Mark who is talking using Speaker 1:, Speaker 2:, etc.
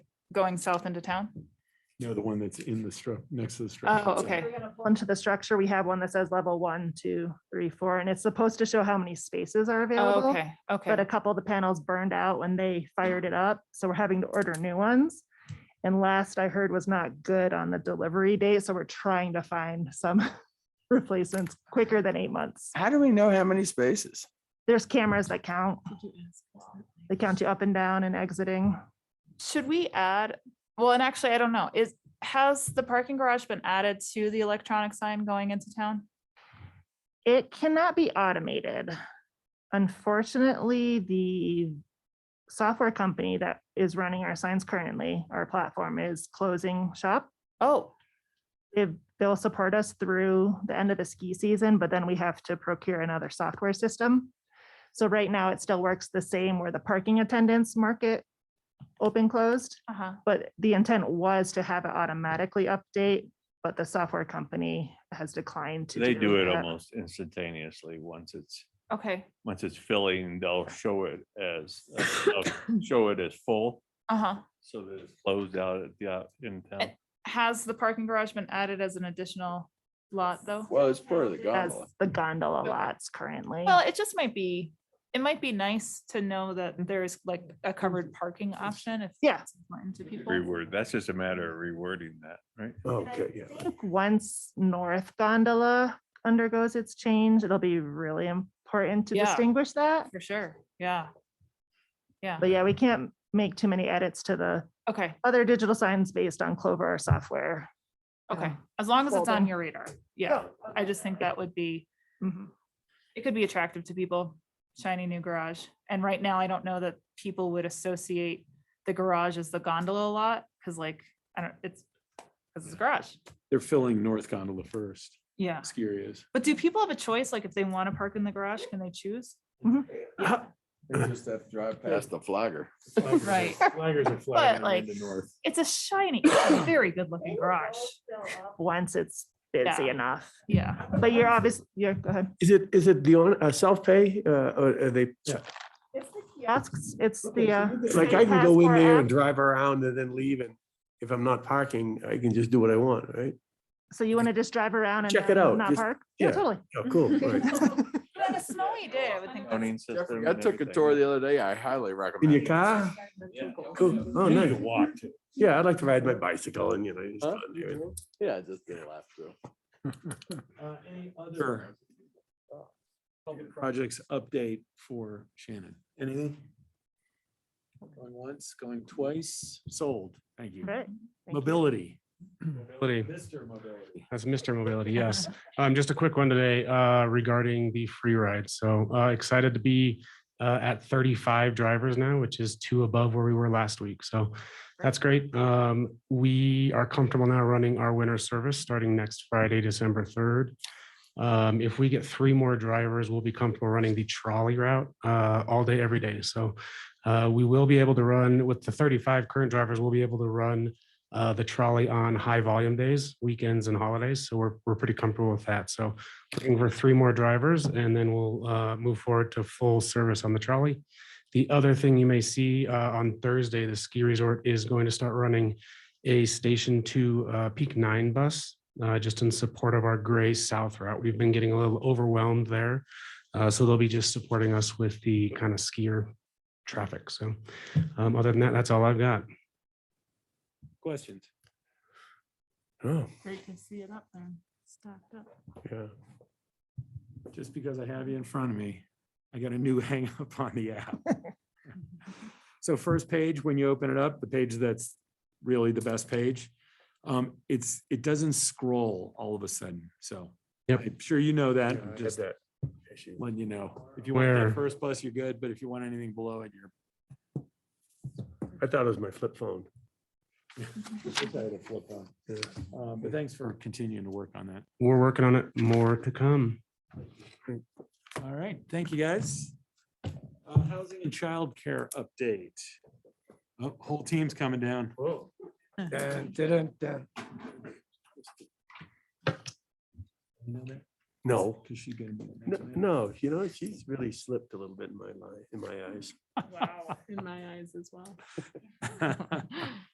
Speaker 1: going south into town?
Speaker 2: No, the one that's in the stru, next to the structure.
Speaker 1: Oh,
Speaker 2: itself.
Speaker 1: okay.
Speaker 3: We're gonna pull Into the structure, we have one that says level one, two, three, four, and it's supposed to show how many spaces are
Speaker 1: Oh,
Speaker 3: available.
Speaker 1: Okay, okay.
Speaker 3: But a couple of the panels burned out when they fired it up, so we're having to order new ones. And last I heard was not good on the delivery date, so we're trying to find some replacements quicker than eight months.
Speaker 4: How do we know how many spaces?
Speaker 3: There's cameras that count. They count you up and down and exiting.
Speaker 1: Should we add, well, and actually, I don't know, is, has the parking garage been added to the electronic sign going into town?
Speaker 3: It cannot be automated. Unfortunately, the software company that is running our signs currently, our platform is closing shop.
Speaker 1: Oh,
Speaker 3: If they'll support us through the end of the ski season, but then we have to procure another software system. So right now it still works the same where the parking attendants market open closed,
Speaker 1: uh-huh,
Speaker 3: but the intent was to have it automatically update, but the software company has declined to.
Speaker 5: They do it
Speaker 3: that.
Speaker 5: almost instantaneously once it's,
Speaker 1: okay,
Speaker 5: once it's filling, they'll show it as, uh, they'll show it as full.
Speaker 1: uh-huh.
Speaker 5: So that it's closed out at the, out in town.
Speaker 1: And- Has the parking garage been added as an additional lot, though?
Speaker 4: Well, it's part of the
Speaker 3: as
Speaker 4: gondola.
Speaker 3: the gondola lots currently.
Speaker 1: Oh. Well, it just might be, it might be nice to know that there is like a covered parking option if.
Speaker 3: Yeah.
Speaker 1: it's important To people.
Speaker 5: Reword, that's just a matter of rewording that, right?
Speaker 2: Oh, Okay, yeah.
Speaker 3: I think Once North Gondola undergoes its change, it'll be really important to
Speaker 1: Yeah.
Speaker 3: distinguish that.
Speaker 1: For sure, yeah. Yeah,
Speaker 3: But yeah, we can't make too many edits to the
Speaker 1: okay,
Speaker 3: other digital signs based on Clover or software. Um,
Speaker 1: okay, Uh-huh. as long as it's on
Speaker 3: folding.
Speaker 1: your radar, yeah, I just think that would be.
Speaker 3: Mhm.
Speaker 1: it could be attractive to people, shiny new garage. And right now, I don't know that people would associate the garage as the gondola a lot, because like, I don't, it's, because it's a garage.
Speaker 2: They're filling North Gondola first.
Speaker 1: Yeah.
Speaker 2: Ski areas.
Speaker 1: But do people have a choice? Like if they want to park in the garage, can they choose?
Speaker 4: They just have to drive past the flagger.
Speaker 1: Right.
Speaker 2: Flaggers are
Speaker 1: But like, it's a shiny, it's a very good looking garage.
Speaker 3: Once it's busy
Speaker 1: Yeah.
Speaker 3: enough,
Speaker 1: Yeah.
Speaker 3: but you're obvious, yeah, go ahead.
Speaker 6: Is it, is it the on, uh, self-pay, uh, or are they,
Speaker 3: Kiosks, it's the. uh,
Speaker 6: like,
Speaker 3: state
Speaker 6: I can go in
Speaker 3: passport
Speaker 6: there
Speaker 3: app.
Speaker 6: and drive around and then leave and if I'm not parking, I can just do what I want, right?
Speaker 3: So you want to just drive around and
Speaker 6: Check it
Speaker 3: then
Speaker 6: out,
Speaker 3: Not
Speaker 6: just-
Speaker 3: park? Yeah,
Speaker 6: yeah.
Speaker 3: totally.
Speaker 6: Oh, cool. all right.
Speaker 1: On a snowy day, I would think. that's-
Speaker 5: Zoning system
Speaker 4: I
Speaker 5: and
Speaker 4: took a
Speaker 5: everything.
Speaker 4: tour the other day. I highly
Speaker 6: In
Speaker 4: recommend.
Speaker 6: your
Speaker 4: it.
Speaker 6: car? Cool. Oh,
Speaker 2: You need
Speaker 6: nice.
Speaker 2: to walk to
Speaker 6: Yeah, I'd like to ride my bicycle and, you know, just go in there and-
Speaker 4: Yeah, just did a lap through.
Speaker 7: Uh, any
Speaker 2: Sure.
Speaker 7: other? uh, public pro-
Speaker 2: projects update for Shannon. Anything?
Speaker 7: Going once, going twice,
Speaker 2: Sold. Thank you.
Speaker 3: Great. Thank you.
Speaker 2: Mobility.
Speaker 8: Mobility,
Speaker 7: Mr. Mobility.
Speaker 8: that's Mr. Mobility, yes. Um, just a quick one today, uh, regarding the free ride. So, uh, excited to be, uh, at thirty-five drivers now, which is two above where we were last week. So that's great. Um, we are comfortable now running our winter service starting next Friday, December third. Um, if we get three more drivers, we'll be comfortable running the trolley route, uh, all day, every day. So, uh, we will be able to run with the thirty-five current drivers, we'll be able to run uh, the trolley on high volume days, weekends and holidays. So we're, we're pretty comfortable with that. So looking for three more drivers and then we'll, uh, move forward to full service on the trolley. The other thing you may see, uh, on Thursday, the ski resort is going to start running a station two, uh, peak nine bus, uh, just in support of our gray south route. We've been getting a little overwhelmed there. Uh, so they'll be just supporting us with the kind of skier traffic. So, um, other than that, that's all I've got.
Speaker 2: Questions?
Speaker 6: Oh,
Speaker 1: They can see it up there, stacked up.
Speaker 6: yeah.
Speaker 2: Just because I have you in front of me, I got a new hang up on the app. So first page, when you open it up, the page that's really the best page, um, it's, it doesn't scroll all of a sudden, so.
Speaker 8: Yep.
Speaker 2: I'm sure you know
Speaker 6: I
Speaker 2: that, I'm
Speaker 6: had
Speaker 2: just
Speaker 6: that issue.
Speaker 2: letting you know. If you want
Speaker 8: Where-
Speaker 2: that first bus, you're good, but if you want anything below it, you're
Speaker 6: I thought it was my flip phone. Yeah.
Speaker 2: Um, But thanks for continuing to work on that.
Speaker 8: We're working on it. More to come.
Speaker 2: All right, thank you, guys. Uh, Housing and childcare update. Oh, Whole team's coming down.
Speaker 6: Oh. Dun, dun, dun. No,
Speaker 2: Cause she gonna be the
Speaker 6: no,
Speaker 2: next man.
Speaker 6: no, you know, she's really slipped a little bit in my line, in my eyes.
Speaker 1: In my eyes as well.